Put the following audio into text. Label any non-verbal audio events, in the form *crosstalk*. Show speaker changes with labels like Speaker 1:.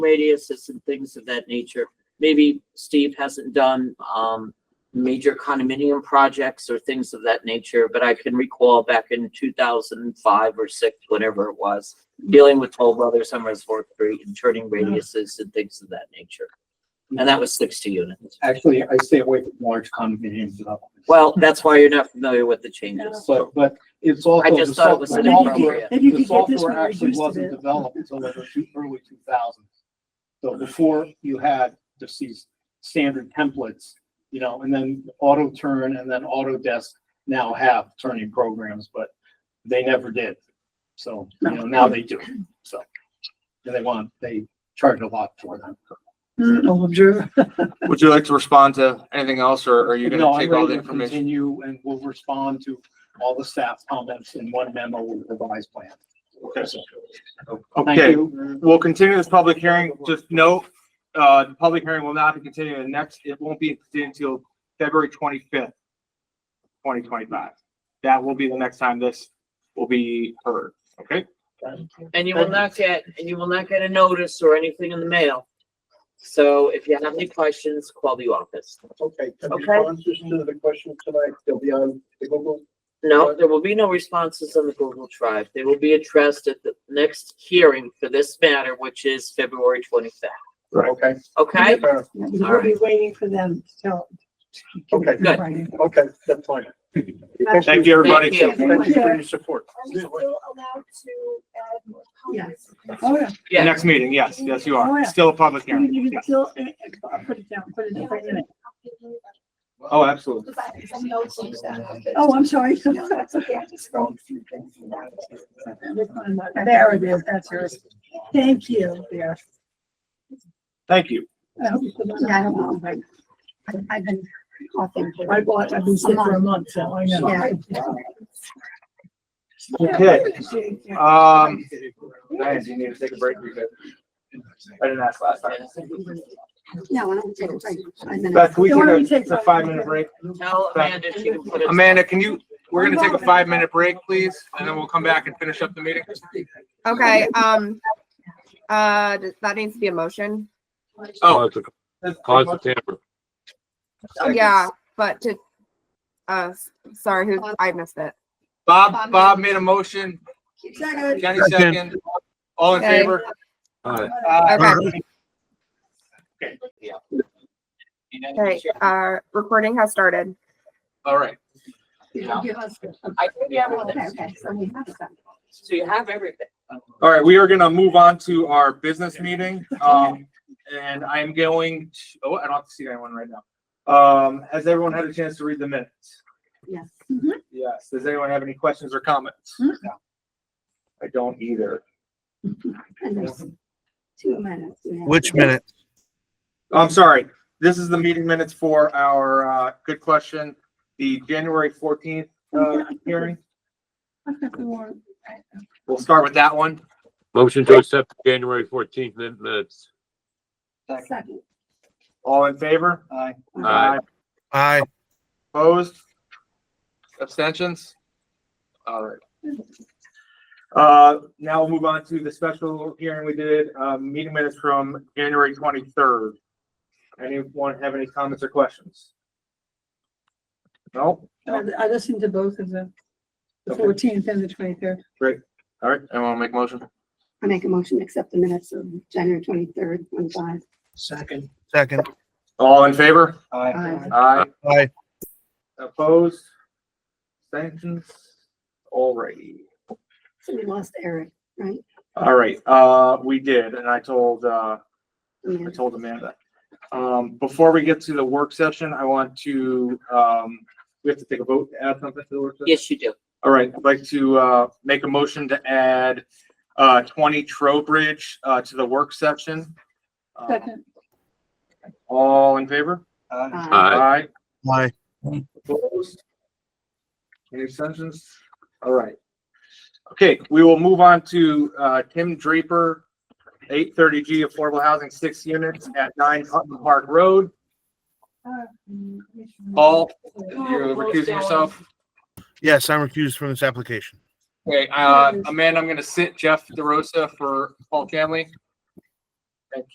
Speaker 1: radiuses and things of that nature. Maybe Steve hasn't done, um, major condominium projects or things of that nature, but I can recall back in two thousand and five or six, whatever it was, dealing with Toll Brothers, Summers Fourth Street, and turning radiuses and things of that nature. And that was sixty units.
Speaker 2: Actually, I stay away from large condominium developments.
Speaker 1: Well, that's why you're not familiar with the changes.
Speaker 2: But, but it's also.
Speaker 1: I just
Speaker 2: the
Speaker 1: thought it was
Speaker 2: software-
Speaker 1: inappropriate.
Speaker 3: If you
Speaker 2: The
Speaker 3: could get this one
Speaker 2: software actually
Speaker 3: reduced a
Speaker 2: wasn't
Speaker 3: bit.
Speaker 2: developed until the two- early two thousands. So before you had just these standard templates, you know, and then auto turn and then Autodesk now have turning programs, but they never did. So, you know, now they do, so. And they want, they charge a lot for them.
Speaker 3: No, I'm sure.
Speaker 4: Would you like to respond to anything else or are you
Speaker 2: No,
Speaker 4: gonna
Speaker 2: I'm
Speaker 4: take all
Speaker 2: ready
Speaker 4: the
Speaker 2: to
Speaker 4: information?
Speaker 2: Continue and we'll respond to all the staff comments in one memo with revised plan. Thank
Speaker 4: Okay,
Speaker 2: you.
Speaker 4: we'll continue this public hearing. Just note, uh, the public hearing will not be continued The next, it won't be continued until February twenty-fifth, twenty twenty-five. That will be the next time this will be heard, okay?
Speaker 1: And you will not get, and you will not get a notice or anything in the mail. So if you have any questions, call the office.
Speaker 5: Okay, and
Speaker 1: Okay.
Speaker 5: responses to the questions tonight, they'll be on the Google.
Speaker 1: No, there will be no responses on the Google Drive. They will be addressed at the next hearing for this matter, which is February twenty-fifth.
Speaker 4: Right.
Speaker 5: Okay,
Speaker 1: Okay?
Speaker 5: Uh,
Speaker 3: We'll be waiting for them to tell. to give it in
Speaker 1: Good.
Speaker 3: writing.
Speaker 5: okay, that's fine.
Speaker 4: Thank you, everybody.
Speaker 1: Thank you.
Speaker 5: Thank you for your support.
Speaker 6: Are we still allowed to add more comments?
Speaker 3: Oh, yeah.
Speaker 1: Yeah.
Speaker 4: Next meeting, yes, yes, you
Speaker 2: Oh,
Speaker 4: are. Still a public
Speaker 3: You
Speaker 4: hearing.
Speaker 3: can- you can
Speaker 4: Yes.
Speaker 3: still, eh, eh, put it down, put it in front of it.
Speaker 4: Oh, absolutely.
Speaker 3: Oh, I'm sorry. *laughs*
Speaker 6: No, that's okay, I just scrolled through things and that was it.
Speaker 3: uh, There it is, that's yours. Thank you, there.
Speaker 4: Thank you.
Speaker 3: I hope you put it
Speaker 7: Yeah, I
Speaker 3: on.
Speaker 7: don't know, but I- I've been coughing. for-
Speaker 3: I bought, I've been sick for a month, so I know.
Speaker 7: Yeah.
Speaker 4: Okay,
Speaker 3: Yeah.
Speaker 4: um, Diane, do you need to take a break? Because I didn't ask last time.
Speaker 7: No, I don't take a break. Five minutes.
Speaker 4: Beth, can we
Speaker 3: Yeah, why don't we
Speaker 4: take
Speaker 3: take
Speaker 4: a, a
Speaker 3: five
Speaker 4: five-minute
Speaker 3: minutes?
Speaker 4: break?
Speaker 1: Tell Amanda she can put it.
Speaker 4: Amanda, can you, we're gonna take a five-minute break, please, and then we'll come back and finish up the meeting.
Speaker 8: Okay, um, uh, th- that needs to be a motion.
Speaker 4: Oh.
Speaker 9: Cause the tamper.
Speaker 8: Yeah, but to, uh, s- sorry, who, I missed it.
Speaker 4: Bob, Bob made a motion,
Speaker 3: Second.
Speaker 4: Kenny second, all in
Speaker 8: Okay.
Speaker 4: favor?
Speaker 9: Aye.
Speaker 2: uh,
Speaker 8: Uh,
Speaker 4: Aye.
Speaker 8: Okay, uh, recording has started.
Speaker 4: All right,
Speaker 1: I think you have all
Speaker 7: Okay,
Speaker 1: this.
Speaker 7: okay, so we have some.
Speaker 1: So you have everything.
Speaker 4: all right, we are gonna move on to our business meeting, um, and I'm going, to- oh, I don't have to see anyone right now. Um, has everyone had a chance to read the minutes?
Speaker 7: Yes.
Speaker 4: Yes, does anyone have any questions or comments? I don't either.
Speaker 7: And there's two minutes. yeah.
Speaker 10: Which minute?
Speaker 4: I'm sorry. This is the meeting minutes for our, uh, good question, the January fourteenth, uh, hearing.
Speaker 3: I've got
Speaker 7: *laughs*
Speaker 3: the warrant.
Speaker 4: We'll start with that one.
Speaker 9: Motion to accept January fourteenth minutes.
Speaker 7: Second.
Speaker 4: All in favor?
Speaker 2: Aye.
Speaker 9: Aye.
Speaker 10: Aye.
Speaker 4: Opposed? Abstentions? All right. Uh, now we'll move on to the special hearing we did, uh, meeting minutes from January twenty-third. Anyone have any comments or questions? No?
Speaker 3: I I listened to both of them, the
Speaker 4: Okay.
Speaker 3: fourteenth and the twenty-third.
Speaker 4: All right, anyone make motion?
Speaker 7: I make a motion to accept the minutes of January twenty-third, twenty-five.
Speaker 2: Second.
Speaker 10: Second.
Speaker 4: All in favor?
Speaker 7: Aye.
Speaker 4: Aye.
Speaker 10: Aye.
Speaker 4: Opposed? Sanctions? Alrighty.
Speaker 7: So we lost Eric, right?
Speaker 4: Alright, uh, we did, and I told, uh, I
Speaker 7: Yeah.
Speaker 4: told Amanda. Um, before we get to the work session, I want to, um, we have to take a vote, to add something to the work session?
Speaker 1: Yes, you do.
Speaker 4: Alright, I'd like to, uh, make a motion to add, uh, twenty Trowbridge, uh, to the work session. Uh,
Speaker 3: Second.
Speaker 4: All in favor?
Speaker 7: Aye.
Speaker 9: Aye.
Speaker 4: Aye.
Speaker 10: Aye.
Speaker 4: Opposed? Any extensions? All right. Okay, we will move on to uh, Tim Draper, eight thirty G Affordable Housing, six units at nine Hutton Park Road. Paul, you're recusing yourself.
Speaker 10: Yes, I'm recused from this application.
Speaker 4: Okay, uh, Amanda, I'm gonna sit Jeff DeRosa for Paul Chamley.